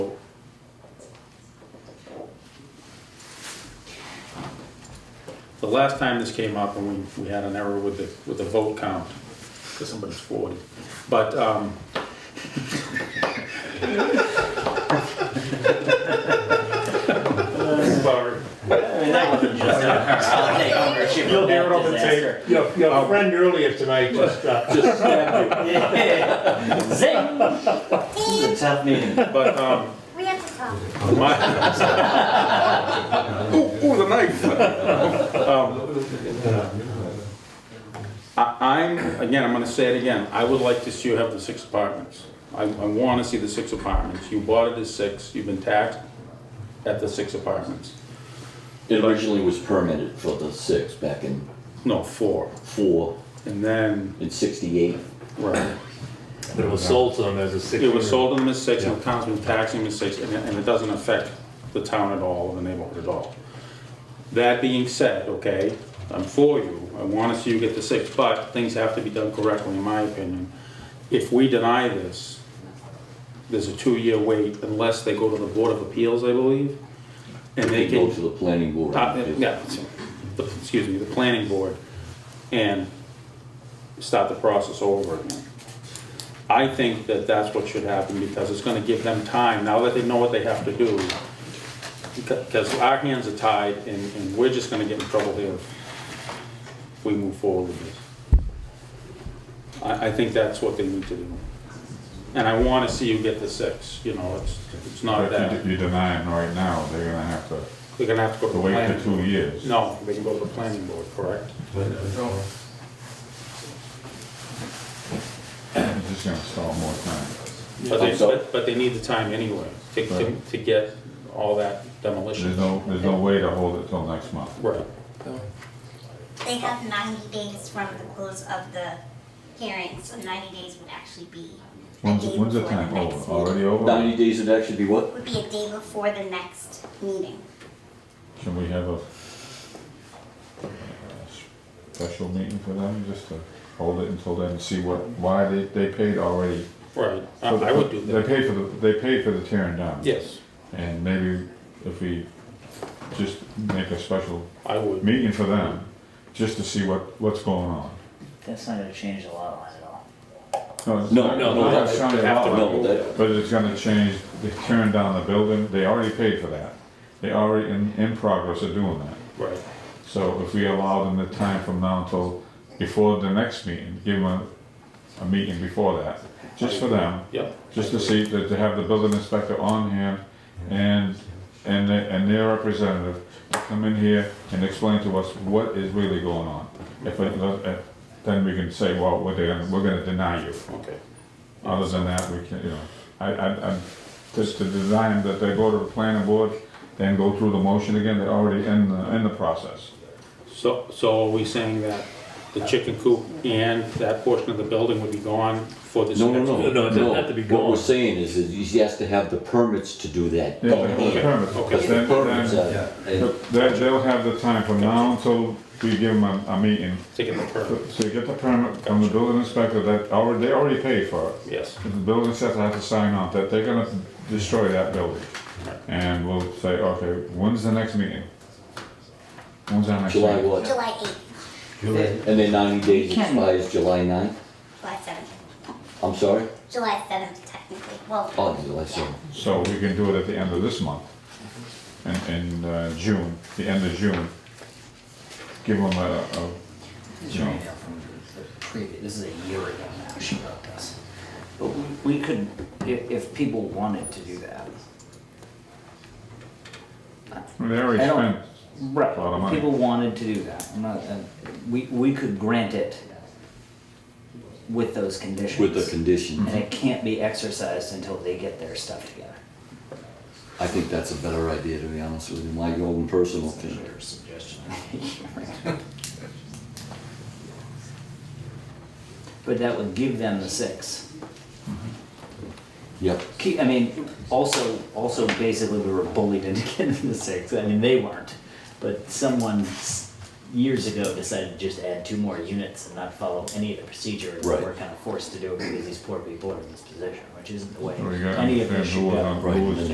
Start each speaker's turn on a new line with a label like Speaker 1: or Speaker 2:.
Speaker 1: last time this came up, and we, we had an error with the, with the vote count, because somebody's forty, but, um. Sorry.
Speaker 2: I mean, that wasn't just her. I'll take ownership
Speaker 3: You'll
Speaker 2: of
Speaker 3: hear it
Speaker 2: that
Speaker 3: on the
Speaker 2: disaster.
Speaker 3: tape. Your,
Speaker 4: Oh.
Speaker 3: your friend earlier tonight just, uh,
Speaker 1: Just stabbed you.
Speaker 2: Yeah. Zing! This is a tough meeting.
Speaker 1: But, um,
Speaker 5: We have to talk.
Speaker 1: my. Ooh, ooh, the knife. Um, I- I'm, again, I'm gonna say it again, I would like to see you have the six apartments. I, I wanna see the six apartments. You bought it as six, you've been taxed at the six apartments.
Speaker 6: It originally was permitted for the six back in
Speaker 1: No, four.
Speaker 6: four,
Speaker 1: And then,
Speaker 6: in sixty-eight.
Speaker 1: right,
Speaker 4: It was sold to them as a six.
Speaker 1: it was sold to them as six, and the town's been taxing them as six, and it, and it doesn't affect the town at all, or the neighborhood at all. That being said, okay, I'm for you, I wanna see you get the six, but things have to be done correctly, in my opinion. If we deny this, there's a two-year wait unless they go to the Board of Appeals, I believe, and they
Speaker 6: They go
Speaker 1: can
Speaker 6: to the planning board.
Speaker 1: uh, Yeah, the- excuse me, the planning board, and start the process over again. I think that that's what should happen, because it's gonna give them time, now that they know what they have to do, because our hands are tied, and, and we're just gonna get in trouble here if we move forward with this. I, I think that's what they need to do. And I wanna see you get the six, you know, it's, it's not
Speaker 7: But if
Speaker 1: that,
Speaker 7: you deny them right now, they're gonna have to
Speaker 1: they're gonna have to go to the
Speaker 7: wait
Speaker 1: planning.
Speaker 7: for two years.
Speaker 1: No, they can go to the planning board, correct?
Speaker 3: uh,
Speaker 7: It's just gonna stall more time.
Speaker 1: But they,
Speaker 6: Hope so.
Speaker 1: but, but they need the time anyway to, to,
Speaker 7: Right.
Speaker 1: to get all that
Speaker 7: There's
Speaker 1: demolition.
Speaker 7: no, there's no way to hold it till next month.
Speaker 1: Right,
Speaker 5: They have ninety days from the close of the hearing, so ninety days would actually be a
Speaker 7: When's,
Speaker 5: day
Speaker 7: when's the
Speaker 5: before
Speaker 7: time
Speaker 5: the next
Speaker 7: over?
Speaker 5: meeting.
Speaker 7: Already over?
Speaker 6: Ninety days would actually be what?
Speaker 5: Would be a day before the next meeting.
Speaker 7: Can we have a uh, special meeting for them, just to hold it until then, see what, why they, they paid already?
Speaker 1: right, I, Uh, I would do that,
Speaker 7: They paid for the, they paid for the tearing down.
Speaker 1: yes,
Speaker 7: And maybe if we just make a special
Speaker 1: I would,
Speaker 7: meeting for them, just to see what, what's going on.
Speaker 2: That's not gonna change the lot line at all.
Speaker 7: No, it's
Speaker 6: No,
Speaker 7: not-
Speaker 6: no, no,
Speaker 7: not
Speaker 6: that's,
Speaker 7: showing
Speaker 1: have to
Speaker 7: all of
Speaker 6: no,
Speaker 7: it,
Speaker 6: that,
Speaker 7: But it's gonna change, they turned down the building, they already paid for that. They already in, in progress of doing that.
Speaker 1: right,
Speaker 7: So if we allow them the time from now until before the next meeting, give them a, a meeting before that, just for them,
Speaker 1: yep.
Speaker 7: just to see, that to have the building inspector on hand and, and, the- and their representative come in here and explain to us what is really going on. If, it- if- then we can say, well, we're gonna, we're gonna deny you.
Speaker 1: Okay,
Speaker 7: Other than that, we can, you know, I, I, I'm, just to design that they go to the planning board, then go through the motion again, they're already in the, in the process.
Speaker 1: so, so are we saying that the chicken coop and that portion of the building would be gone for this
Speaker 6: no,
Speaker 1: next?
Speaker 6: no,
Speaker 4: No,
Speaker 6: no.
Speaker 4: it doesn't have to be
Speaker 6: What we're
Speaker 4: gone.
Speaker 6: saying is, is he has to have the permits to do that.
Speaker 7: Yeah, they hold the permits,
Speaker 1: Okay.
Speaker 6: Because
Speaker 7: but
Speaker 6: the
Speaker 7: then,
Speaker 6: Oh, permits
Speaker 7: then,
Speaker 6: are, and
Speaker 7: they- they'll have the time from now until we give them a, a meeting.
Speaker 1: To get the permit,
Speaker 7: So you get the permit from the building inspector that already, they already paid for it.
Speaker 1: yes,
Speaker 7: The building inspector has to sign off that they're gonna destroy that building. And we'll say, okay, when's the next meeting? When's our next
Speaker 6: July
Speaker 7: meeting?
Speaker 6: what?
Speaker 5: July eighth,
Speaker 6: And then ninety days
Speaker 2: Can-
Speaker 6: expires July ninth?
Speaker 5: July seventh,
Speaker 6: I'm sorry?
Speaker 5: July seventh technically, well.
Speaker 6: Oh, July seventh.
Speaker 7: So we can do it at the end of this month, in, in uh, June, the end of June. Give them a, a,
Speaker 2: This is
Speaker 7: you know,
Speaker 2: right now from the previous, this is a year ago now she wrote this. But we, we could, if, if people wanted to do that.
Speaker 7: they already
Speaker 2: I don't-
Speaker 7: spent.
Speaker 2: Right.
Speaker 7: A lot of money.
Speaker 2: People wanted to do that, I'm not, uh, we, we could grant it with those conditions.
Speaker 6: With the condition,
Speaker 2: And it can't be exercised until they get their stuff together.
Speaker 6: I think that's a better idea, to be honest with you, my own personal opinion.
Speaker 2: suggestion. But that would give them the six.
Speaker 6: Yep,
Speaker 2: Key, I mean, also, also basically we were bullied into getting the six. I mean, they weren't, but someone s- years ago decided to just add two more units and not follow any of the procedure. and
Speaker 6: Right.
Speaker 2: We're kind of forced to do it because these poor people are in this position, which isn't the way
Speaker 7: We got,
Speaker 2: any of this
Speaker 7: understand
Speaker 2: should
Speaker 7: who was on-
Speaker 2: go.
Speaker 7: who was